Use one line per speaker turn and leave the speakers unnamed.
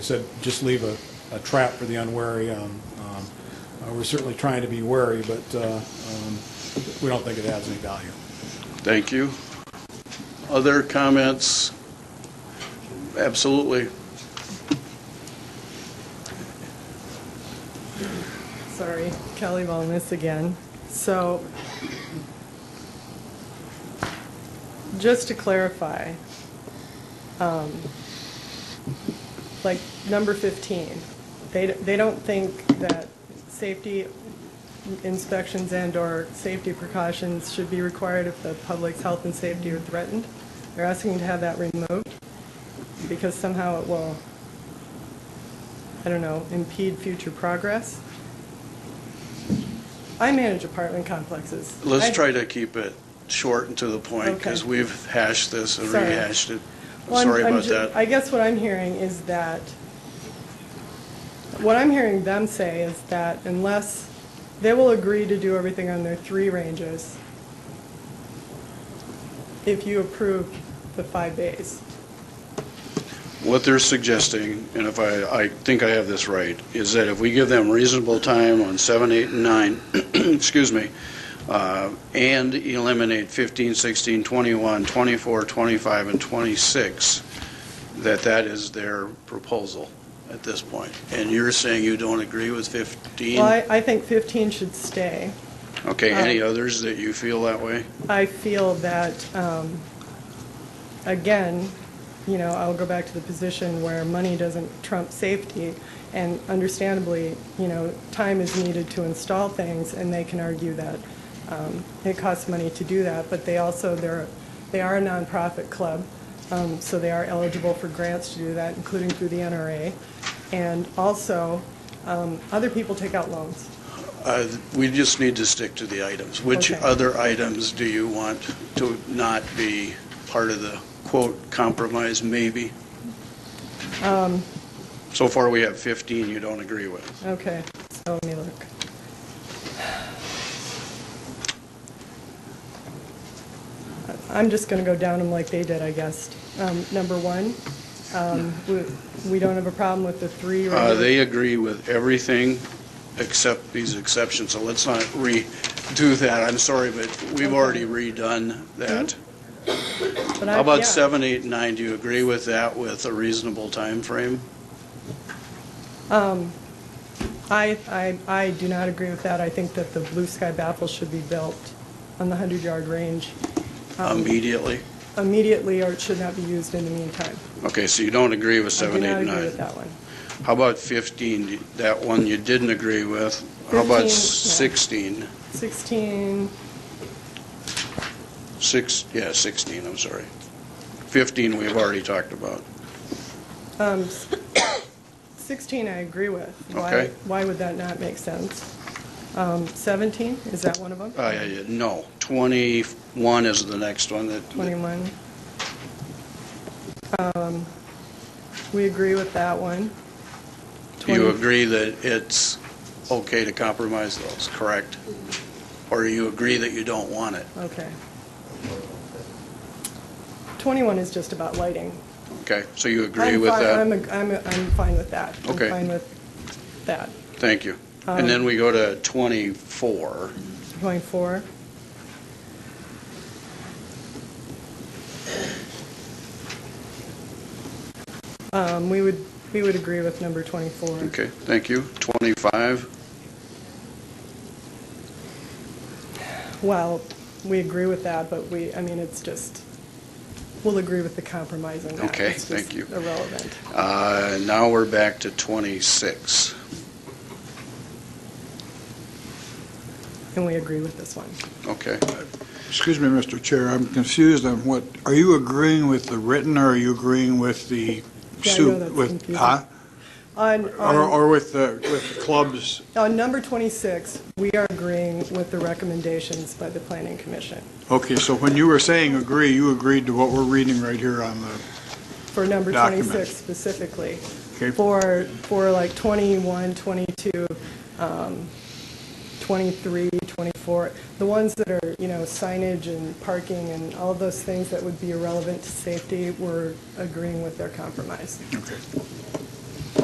said, just leave a, a trap for the unwary. Um, um, uh, We're certainly trying to be wary, but uh, um, we don't think it adds any value.
Thank you. Other comments? Absolutely.
Sorry, Kelly Wellness again. So, just to clarify, um, like number 15, they, they don't think that safety inspections and/or safety precautions should be required if the public's health and safety are threatened. They're asking to have that removed because somehow it will, I don't know, impede future progress. I manage apartment complexes. I-
Let's try to keep it short and to the point, because
Okay.
we've hashed this and
Sorry.
rehashed it.
Well, I'm-
Sorry
I'm
about
ju-
that.
I guess what I'm hearing is that, what I'm hearing them say is that unless, they will agree to do everything on their three ranges if you approve the five bays.
What they're suggesting, and if I, I think I have this right, is that if we give them reasonable time on seven, eight, and nine, excuse me, uh, and eliminate 15, 16, 21, 24, 25, and 26, that that is their proposal at this point. And you're saying you don't agree with 15?
Well, I- I think 15 should stay.
Okay, any
Um,
others that you feel that way?
I feel that, um, again, you know, I'll go back to the position where money doesn't trump safety, and understandably, you know, time is needed to install things, and they can argue that um, it costs money to do that, but they also, they're, they are a nonprofit club, um, so they are eligible for grants to do that, including through the NRA. And also, um, other people take out loans.
Uh, We just need to stick to the items. Which
Okay.
other items do you want to not be part of the quote compromise, maybe?
Um.
So far, we have 15 you don't agree with.
Okay, so let me look. I'm just going to go down them like they did, I guess. Um, Number one, um, we- we don't have a problem with the three.
Uh,
regular-
They agree with everything except these exceptions, so let's not redo that. I'm sorry, but we've
Okay.
already redone that.
but I-
How
yeah.
about seven, eight, and nine? Do you agree with that with a reasonable time frame?
I, I, I do not agree with that. I think that the blue sky baffle should be built on the 100-yard range Um.
immediately?
immediately, or it should not be used in the meantime.
Okay, so you don't agree with
I do
seven, eight,
not
and nine?
agree with that one.
How about 15, that one you didn't agree with? How about
15,
16?
16,
Six, yeah, 16, I'm sorry. 15 we've already talked about.
Um, s- 16 I agree with. Why-
Okay.
Why would that not make sense? Um, 17, is that one of them?
Uh, No, 21 is the next one that...
21. Um, We agree with that one.
You
20
agree that it's okay to compromise those, correct? Or you agree that you don't want it,
Okay. 21 is just about lighting.
okay? So you agree
I'm
with
fi-
that?
I'm, a- I'm, a- I'm fine with that.
Okay.
I'm fine with that.
Thank you.
Uh-huh.
And then we go to 24.
Going four. Um, we would, we would agree with number 24.
Okay, thank you. 25?
Well, we agree with that, but we, I mean, it's just, we'll agree with the compromise on that.
Okay,
It's just
thank you.
irrelevant.
Uh, Now we're back to 26.
And we agree with this one.
Okay.
Excuse me, Mr. Chair, I'm confused on what, are you agreeing with the written or are you agreeing with the
Yeah, I know
soup?
that's
with-
confusing.
huh?
On,
Or,
on,
or with the, with the clubs?
on number 26, we are agreeing with the recommendations by the planning commission.
Okay, so when you were saying agree, you agreed to what we're reading right here on the,
for number
Documents.
26 specifically.
Okay.
For, for like 21, 22, um, 23, 24, the ones that are, you know, signage and parking and all of those things that would be irrelevant to safety, we're agreeing with their compromise.
okay.